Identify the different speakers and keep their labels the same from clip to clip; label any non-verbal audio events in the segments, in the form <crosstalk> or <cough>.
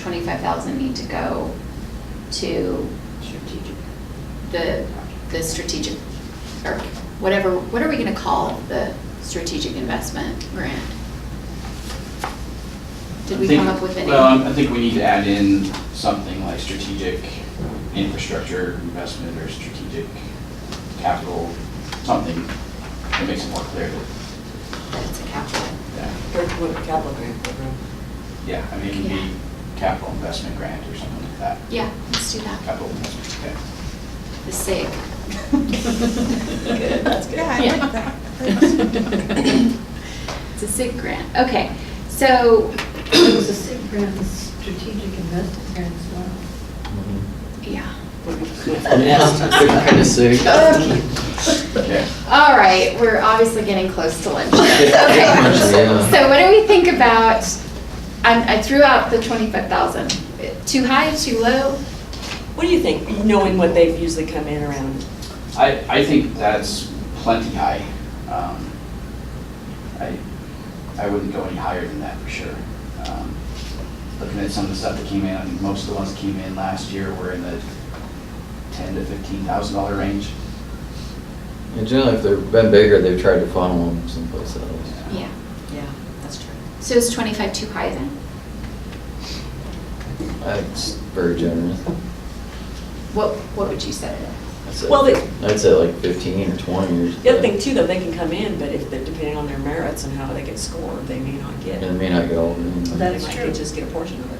Speaker 1: twenty-five thousand need to go to
Speaker 2: Strategic.
Speaker 1: the, the strategic, or whatever, what are we gonna call the strategic investment grant? Did we
Speaker 3: I think-
Speaker 1: come up with any?
Speaker 3: Well, I'm- I think we need to add in something like strategic infrastructure investment or strategic capital, something that makes it more clear that,
Speaker 1: That it's a capital.
Speaker 3: yeah,
Speaker 2: Or what, capital grant program.
Speaker 3: yeah, I mean, it could be capital investment grant or something like that.
Speaker 1: Yeah, let's do that.
Speaker 3: Capital investment, okay.
Speaker 1: The SIG.
Speaker 2: Good, <laughs> that's good.
Speaker 4: Yeah, I
Speaker 1: Yeah.
Speaker 2: <laughs>
Speaker 4: like that.
Speaker 1: It's a SIG grant. Okay, so,
Speaker 5: It was a SIG grant, a strategic investment grant as well.
Speaker 1: yeah.
Speaker 6: <laughs> Kind of sick.
Speaker 3: Okay.
Speaker 1: All right, we're obviously getting close to lunch.
Speaker 6: Yeah,
Speaker 1: Okay.
Speaker 6: yeah.
Speaker 1: So what do we think about, I I threw out the 25,000. Too high, too low?
Speaker 2: <laughs> What do you think, knowing what they've usually come in around?
Speaker 3: I, I think that's plenty high. Um, I, I wouldn't go any higher than that for sure. Um, Looking at some of the stuff that came in, I think most of the ones that came in last year were in the ten to fifteen thousand dollar range.
Speaker 6: And generally, if they've been bigger, they've tried to funnel them someplace else.
Speaker 1: Yeah.
Speaker 2: Yeah, that's true.
Speaker 1: So is 25 too high then?
Speaker 6: That's very generous.
Speaker 1: What, what would you say? then?
Speaker 6: I'd say-
Speaker 2: Well, they-
Speaker 6: I'd say like fifteen or twenty or.
Speaker 2: The other thing too, though, they can come in, but if, they're depending on their merits and how they get scored, they may not get.
Speaker 6: It may not go. in.
Speaker 5: Well, that is
Speaker 2: They might
Speaker 5: true.
Speaker 2: just get a portion of it.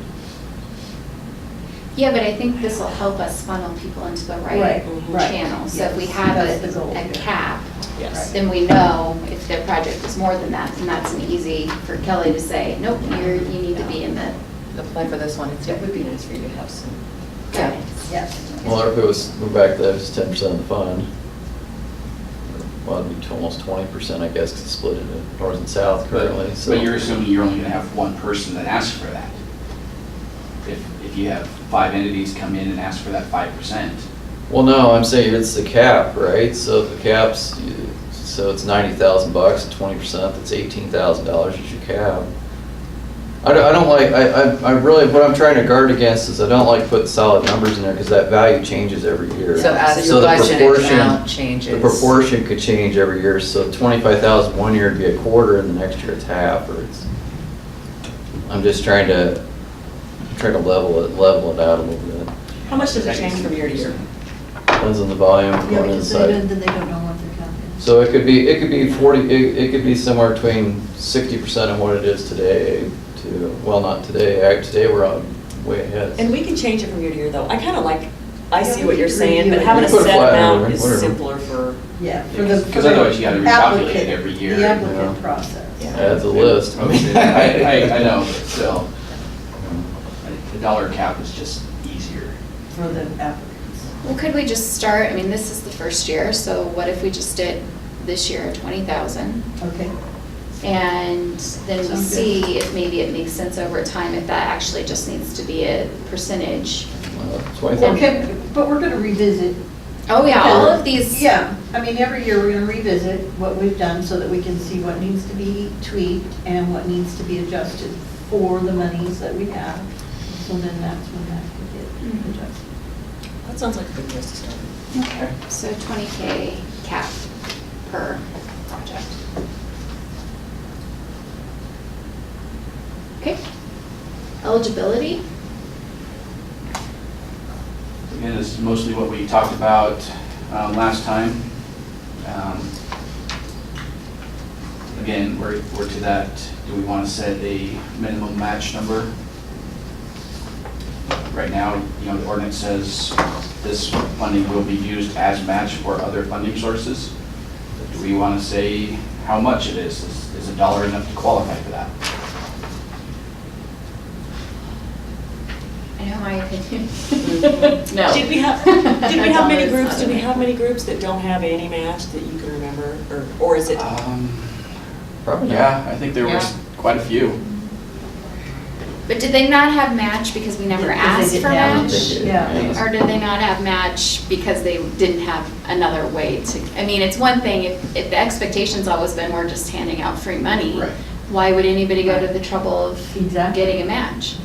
Speaker 1: Yeah, but I think this will help us funnel people into the right
Speaker 5: Right, right.
Speaker 1: channel. So if we
Speaker 5: Yes,
Speaker 1: have
Speaker 5: that's the goal,
Speaker 1: a, a
Speaker 5: yeah.
Speaker 1: cap,
Speaker 2: Yes.
Speaker 1: then we know if their project is more than that, then that's an easy for Kelly to say, nope, you're, you need to be in the
Speaker 4: Apply for this one, It's- it would be nice for you to have some.
Speaker 1: guidance.
Speaker 5: Yes.
Speaker 6: Well, if it was, we're back to that, it's ten percent of the fund. Well, it'd be to almost twenty percent, I guess, 'cause it's split into north and south
Speaker 3: But,
Speaker 6: currently, so.
Speaker 3: but you're assuming you're only gonna have one person that asks for that. If, if you have five entities come in and ask for that five percent,
Speaker 6: Well, no, I'm saying it's the cap, right? So if the cap's, so it's ninety thousand bucks, twenty percent, that's eighteen thousand dollars is your cap. I don't, I don't like, I, I- I really, what I'm trying to guard against is I don't like putting solid numbers in there because that value changes every year.
Speaker 4: So as your
Speaker 6: So the
Speaker 4: budget
Speaker 6: proportion-
Speaker 4: amount changes.
Speaker 6: The proportion could change every year, so twenty-five thousand one year would be a quarter and the next year it's half or it's, I'm just trying to, trying to level it, level it out a little bit.
Speaker 2: How much does it change from year to year?
Speaker 6: Depends on the volume,
Speaker 5: Yeah,
Speaker 6: one
Speaker 5: because
Speaker 3: uh,
Speaker 5: they
Speaker 6: inside.
Speaker 5: don't, then they don't know what they're counting.
Speaker 6: So it could be, it could be forty, it, it could be somewhere between sixty percent of what it is today to, well, not today, act- today we're on way ahead.
Speaker 2: And we can change it from year to year, though. I kind of like, I see what you're
Speaker 5: Yeah, we
Speaker 2: saying,
Speaker 5: can
Speaker 2: but having a
Speaker 6: review it.
Speaker 2: set
Speaker 6: Put a flyer over
Speaker 2: amount
Speaker 6: it,
Speaker 2: is
Speaker 6: whatever.
Speaker 2: simpler for,
Speaker 5: Yeah. for the-
Speaker 3: Because
Speaker 5: for the
Speaker 3: otherwise you gotta recalculate
Speaker 5: applicant-
Speaker 3: every year,
Speaker 5: The
Speaker 3: you
Speaker 6: know.
Speaker 5: applicant
Speaker 2: Yeah.
Speaker 5: process.
Speaker 6: Adds a list.
Speaker 3: I, <laughs>
Speaker 6: <laughs>
Speaker 3: I, I know, but still, the dollar cap is just easier.
Speaker 5: For the applicants.
Speaker 1: Well, could we just start, I mean, this is the first year, so what if we just did this year twenty thousand?
Speaker 5: Okay.
Speaker 1: And then we
Speaker 5: Sounds good.
Speaker 1: see if maybe it makes sense over time, if that actually just needs to be a percentage.
Speaker 6: uh, Twenty-five,
Speaker 5: Okay, but we're gonna revisit.
Speaker 1: Oh, yeah, all of these.
Speaker 5: Yeah, I mean, every year we're gonna revisit what we've done so that we can see what needs to be tweaked and what needs to be adjusted for the monies that we have. So then that's when that could
Speaker 4: Mm-hmm.
Speaker 5: get adjusted.
Speaker 2: that sounds like a good place to start.
Speaker 1: Okay, so twenty K cap per project. Okay. Eligibility?
Speaker 3: Again, this is mostly what we talked about um, last time. Um, Again, we're, we're to that, do we want to set a minimum match number? Right now, you know, the ordinance says this funding will be used as match for other funding sources. Do we want to say how much it is? Is- Is a dollar enough to qualify for that?
Speaker 1: I know my opinion. <laughs> No.
Speaker 2: Did we have, did we have many groups, did we have many groups that don't have any match that you can remember? Or, or is it,
Speaker 6: Uh,
Speaker 3: Um,
Speaker 6: probably not.
Speaker 3: Yeah, I think there was
Speaker 4: Yeah.
Speaker 3: quite a few.
Speaker 1: But did they not have match because we never
Speaker 5: Because they
Speaker 1: asked
Speaker 5: didn't
Speaker 1: for
Speaker 5: have
Speaker 6: I
Speaker 5: it.
Speaker 6: don't
Speaker 1: match?
Speaker 6: think it-
Speaker 5: Yeah.
Speaker 1: Or did they not have match because they didn't have another way to, I mean, it's one thing, if, if the expectation's always been we're just handing out free money,
Speaker 3: Right.
Speaker 1: why would anybody go to the trouble of
Speaker 5: Exactly.
Speaker 1: getting a match?